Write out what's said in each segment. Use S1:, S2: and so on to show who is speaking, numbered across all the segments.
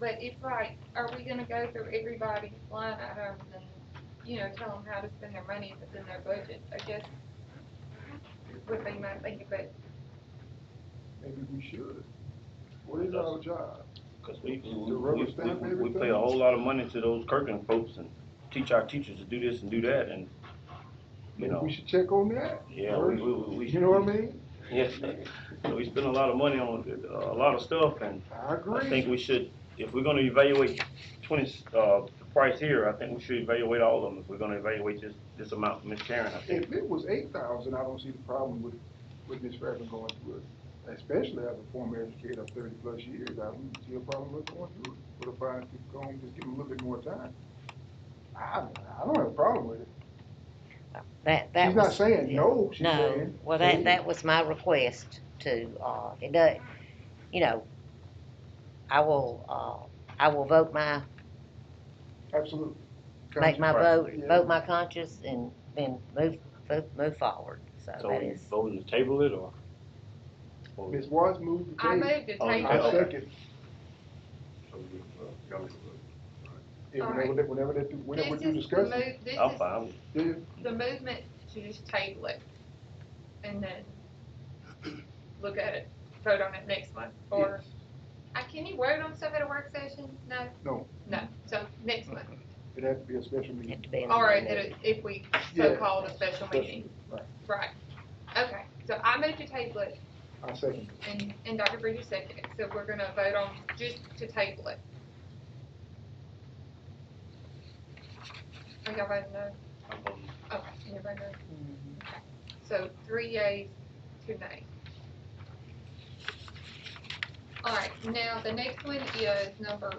S1: but it's like, are we gonna go through everybody's line items and, you know, tell them how to spend their money if it's in their budget? I guess would be my thinking, but
S2: Maybe we should. What is our job?
S3: Cause we, we,
S2: To rubber
S3: we,
S2: stamp
S3: we- we pay
S2: everything?
S3: a whole lot of money to those Kirkland folks and teach our teachers to do this and do that and, you know,
S2: We should check on that.
S3: yeah, we, we, we.
S2: You know what I mean?
S3: Yes, so we spend a lot of money on uh, a lot of stuff and
S2: I
S3: I think
S2: agree.
S3: we should, if we're gonna evaluate twenty, uh, the price here, I think we should evaluate all of them, if we're gonna evaluate this, this amount, Ms. Karen, I think.
S2: If it was eight thousand, I don't see the problem with, with Ms. Fairman going through it. Especially as a former educator of thirty plus years, I don't see a problem with going through it. But if I could go and just give them a little bit more time, I, I don't have a problem with it.
S4: That, that
S2: She's not
S4: was-
S2: saying no, she's
S4: No,
S2: saying.
S4: well,
S2: hey,
S4: that, that was my request to, uh, it does, you know, I will, uh, I will vote my,
S2: Absolutely.
S4: make my vote,
S2: Conscience, right.
S4: vote my conscience and then move, move, move forward, so
S3: So
S4: that
S3: we
S4: is.
S3: voting to table it or? or-
S2: Ms. Watts moved the
S1: I
S2: table.
S1: moved to
S3: Oh, you
S1: table.
S2: I
S3: okay.
S1: it.
S2: second. Yeah,
S1: All
S2: whenever
S1: right.
S2: they, whenever they, do- whenever we
S1: This
S2: do
S1: is the move,
S2: discussing.
S1: this
S3: I'm
S1: is
S3: fine,
S2: Yeah,
S1: the movement to just table it and then look at it, vote on it next month, or, I, can you vote on stuff at a work session? No?
S2: No.
S1: No,
S3: Mm-hmm.
S1: so next month,
S2: It had to be a special
S4: Have
S2: meeting.
S4: to be in the
S1: or
S4: middle.
S3: Mm-hmm.
S1: if- if we
S2: Yeah.
S1: so-called a special meeting,
S2: Right.
S1: right? Okay, so I moved to table it
S2: I second.
S1: and, and Dr. Bridges seconded, it. so we're gonna vote on just to table it. Are y'all voting no?
S3: I'm voting.
S1: Okay, everybody knows. Okay. So three yeas, two nays. All right, now the next one is number,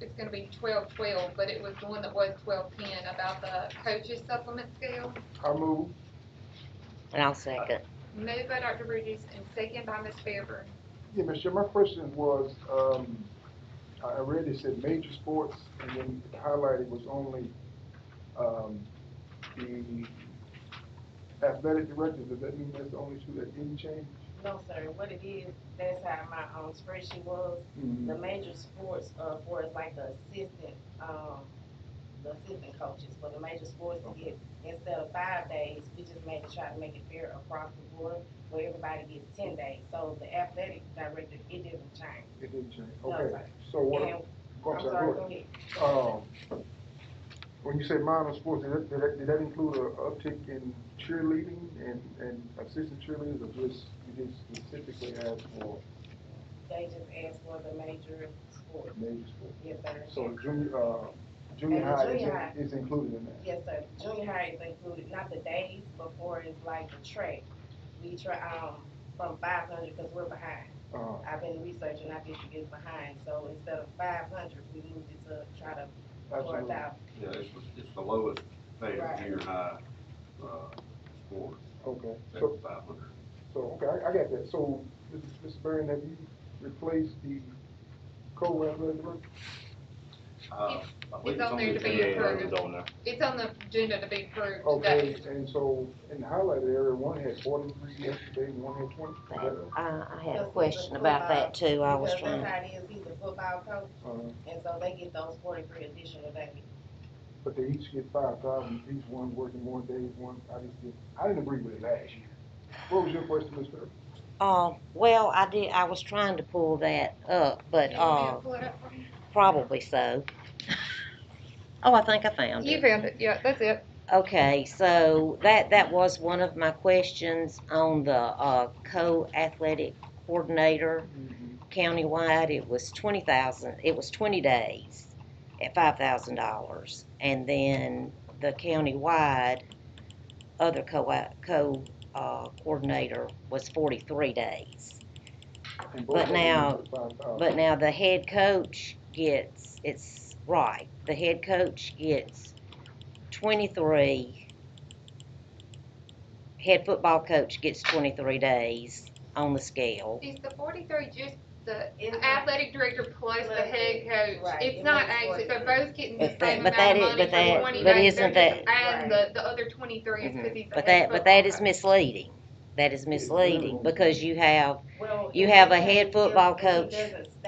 S1: it's gonna be twelve twelve, but it was the one that was twelve ten about the coaches supplement scale.
S2: I move.
S4: And I'll second.
S1: Moved by Dr. Bridges and second by Ms. Fairburn.
S2: Yeah, Mr. Chair, my question was, um, I I read it said major sports and then highlighted was only, um, the athletic directors. Does that mean that's the only two that didn't change?
S5: No, sir, what it is, that's how my, um, spreadsheet was, the
S2: Mm,
S5: major sports, uh, for is like the assistant, um, the assistant coaches, for the major sports to get, instead of five days, we just made, try to make it fair across the board, where everybody gets ten days, so the athletic director, it didn't change.
S2: It didn't change.
S5: No,
S2: Okay,
S5: sir.
S2: so what,
S5: And,
S2: go
S5: I'm
S2: ahead,
S5: sorry,
S2: go
S5: go
S2: ahead.
S5: ahead.
S2: Um, when you say minor sports, did that, did that, did that include a uptick in cheerleading and, and assistant cheerleaders or just, you just specifically asked for
S5: They just asked for the major sports,
S2: major sports?
S5: yes, sir.
S2: So junior, uh, junior
S5: And the
S2: high is,
S5: junior
S2: in-
S5: high.
S2: is included in that?
S5: Yes, sir, junior high is included, not the days, but for is like the track, we try, um, from five hundred, cause we're behind.
S2: Uh,
S5: I've been researching, I think it is behind, so instead of five hundred, we moved it to try to four
S2: absolutely.
S5: thousand.
S6: Yeah, it's, it's the lowest paid
S5: Right.
S6: junior high, uh, sport,
S2: Okay, so,
S6: seventy-five hundred.
S2: so, okay, I, I got that. So, Mrs. Mrs. Barron, have you replaced the co-athletic director?
S6: Uh, I believe
S1: It's on there to
S6: the
S1: be
S3: Yeah,
S6: agenda.
S3: it
S1: approved.
S3: was on there.
S1: It's on the agenda to be approved
S2: Okay,
S1: today.
S2: and so in the highlighted area, one had forty-three yesterday and one had twenty.
S4: I, I had a question about that too, I was
S5: Because
S4: trying,
S5: that's how it is, he's a football coach,
S2: Uh,
S5: and so they get those forty-three additional days.
S2: But they each get five thousand, each one working more days, one, I just didn't, I didn't agree with it last year. What was your question, Mr. Irvin?
S4: uh, well, I did, I was trying to pull that up, but,
S1: You want me to
S4: uh,
S1: pull it up for you?
S4: probably so. Oh, I think I found it.
S1: You found it, yeah, that's it.
S4: Okay, so that, that was one of my questions on the, uh, co-athletic coordinator countywide. It was twenty thousand, it was twenty days at five thousand dollars. And then the countywide other co, co, uh, coordinator was forty-three days.
S2: And both of them
S4: now-
S2: get $5,000.
S4: But now the head coach gets, it's right, the head coach gets twenty-three. Head football coach gets twenty-three days on the scale.
S1: Is the forty-three just the
S5: It's-
S1: athletic director plus the head coach?
S5: Right,
S1: It's
S5: it
S1: not
S5: makes
S1: actually, they're
S5: forty-three.
S1: both getting the
S4: But that-
S1: same
S4: but
S1: amount
S4: that
S1: of
S4: is-
S1: money
S4: but
S1: for
S4: that-
S1: twenty days,
S4: but
S1: they're
S4: isn't
S1: just
S4: that-
S1: adding the,
S5: Right.
S1: the other twenty-three is
S4: Mhm.
S1: cause he's the
S4: But
S1: head
S4: that, but that is
S1: football coach.
S4: misleading. That is misleading because you have,
S5: Well.
S4: You
S5: it
S4: have a
S5: doesn't-
S4: head
S5: it
S4: football
S5: doesn't-
S4: coach.
S5: It doesn't